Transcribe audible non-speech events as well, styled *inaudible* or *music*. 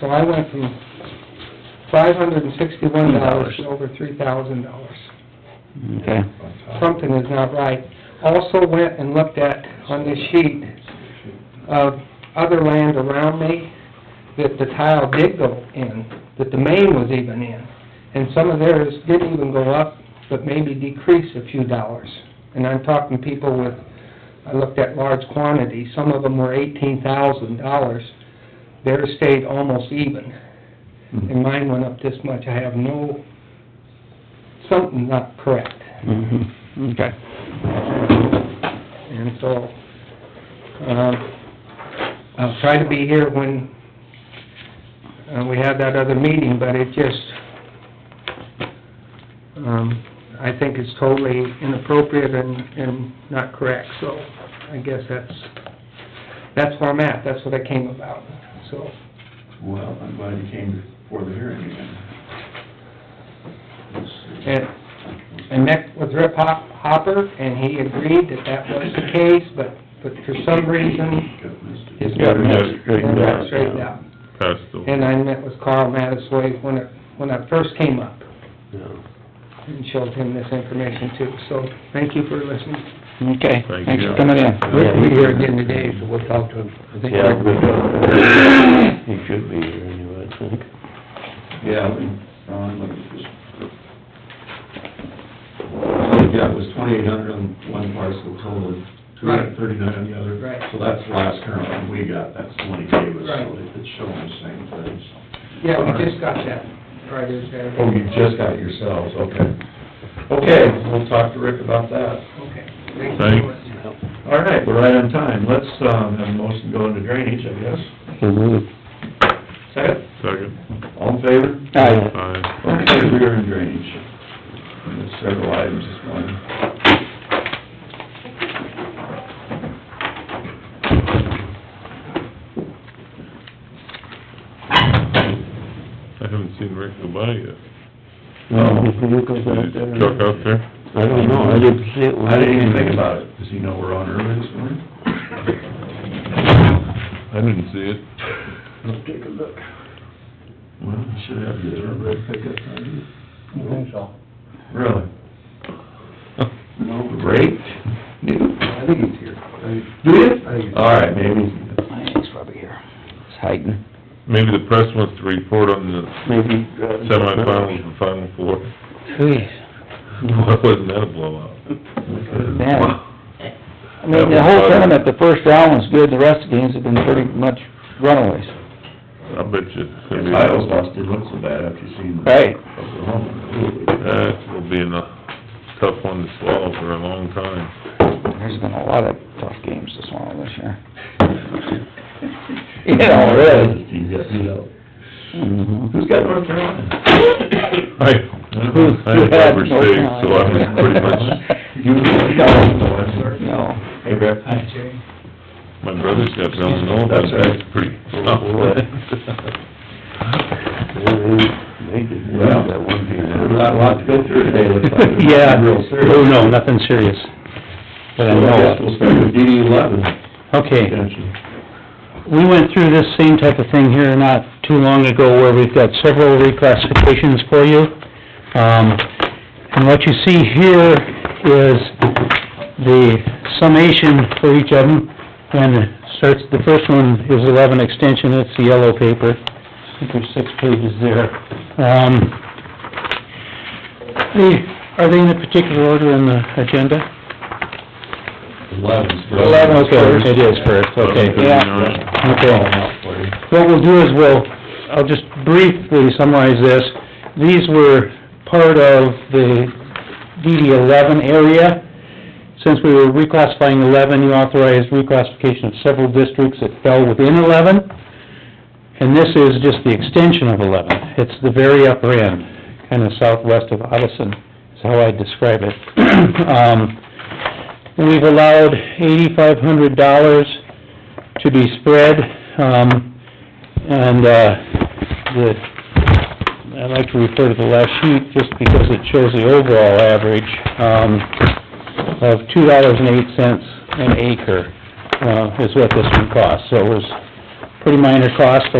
So I went from five hundred and sixty-one dollars to over three thousand dollars. Okay, Something is not right. Also went and looked at, on this sheet, of other land around me that the tile did go in, that the main was even in. And some of theirs didn't even go up, but maybe decreased a few dollars. And I'm talking people with, I looked at large quantities, some of them were eighteen thousand dollars. Theirs stayed almost even, Mm-hmm. and mine went up this much. I have no, something not correct. mhm, okay. And so, um, I'll try to be here when, uh, we have that other meeting, but it just, um, I think it's totally inappropriate and, and not correct, so I guess that's, that's where I'm at, that's what I came about, so. Well, I'm glad you came before the hearing again. Let's see. And I met with Rip Hop- Hopper, and he agreed that that was the case, but, but for some reason, Got missed it. his Yeah, we got government, it straightened out. straightened out. That's the, And I met with Carl Mattisway when it, when I first came up and showed him this information too. So thank you for listening. Okay, Thank thanks you. for coming in. Rick will be here again today, so we'll talk to him. I think Yeah, we Rick- don't, he should be here anyway, I think. Yeah, Ron, look at this. All we got was twenty-eight hundred on one parcel total, two hundred and thirty-nine on the other. Right. So that's the last current one we got, that's the one he gave us, Right. so it- it's showing the same thing. Yeah, we just got that. Right, it was there. Oh, you just got it yourselves, okay. Okay, we'll talk to Rick about that. Okay. Thank you so Thanks. much. All right, we're right on time. Let's, um, have a motion go into drainage, I guess. So moved. Second? second, All in favor? Aye. aye. Okay, we are in drainage. And There's several items this morning. I haven't seen Rick go by yet. No. His vehicle's out Did there. he truck out there? I don't know, I didn't see it. when I didn't even think about it. Does he know we're on early this morning? I didn't see it. Let's take a look. Well, we should have the thoroughbred pickup time. I think so. Really? No, great. I think he's here. Uh, Do you? All right, maybe. I think He's probably here. He's hiding, Maybe the press wants to report on the maybe. he's uh, driving. semifinals and final *laughs* four. Why wasn't that a blowout? Jeez, man. I mean, the whole tournament, the first round was good, the rest of the games have been pretty much runaways. I bet you. it's gonna be- Titles lost, it looks so bad after seeing Right. Oklahoma. That will be a tough one to swallow for a long time. There's been a lot of tough games this one this year. *laughs* Yeah, really. He got beat up. Mm-hmm. Mhm. Who's got North Carolina? I, Who's- I have Weber State, so I'm pretty *laughs* much, *laughs* You, no, I'm sorry. No. Hey, Brett. my brother's got Illinois, but that's pretty *laughs* tough. They did, well, that one There's not a lot to go through today, looks *laughs* like. Yeah, Real serious. oh, no, nothing serious. But I So I guess know, we'll start with DD eleven. okay. Attention. we went through this same type of thing here not too long ago, where we've got several reclassifications for you. Um, and what you see here is the summation for each of them, and it starts, the first one is eleven extension, it's the yellow paper. I think there's six pages there. Um, they, are they in a particular order in the agenda? Eleven's first. Okay, it is first, okay, Yeah. okay. Call 'em out for you. What we'll do is we'll, I'll just briefly summarize this. These were part of the DD eleven area. Since we were reclassifying eleven, you authorized reclassification of several districts that fell within eleven. And this is just the extension of eleven. It's the very upper end, kind of southwest of Odison, is how I describe it. *clears throat* Um, we've allowed eighty-five hundred dollars to be spread, um, and, uh, the, I like to refer to the last sheet just because it shows the overall average, um, of two dollars and eight cents an acre, uh, is what this one costs. So it was pretty minor cost,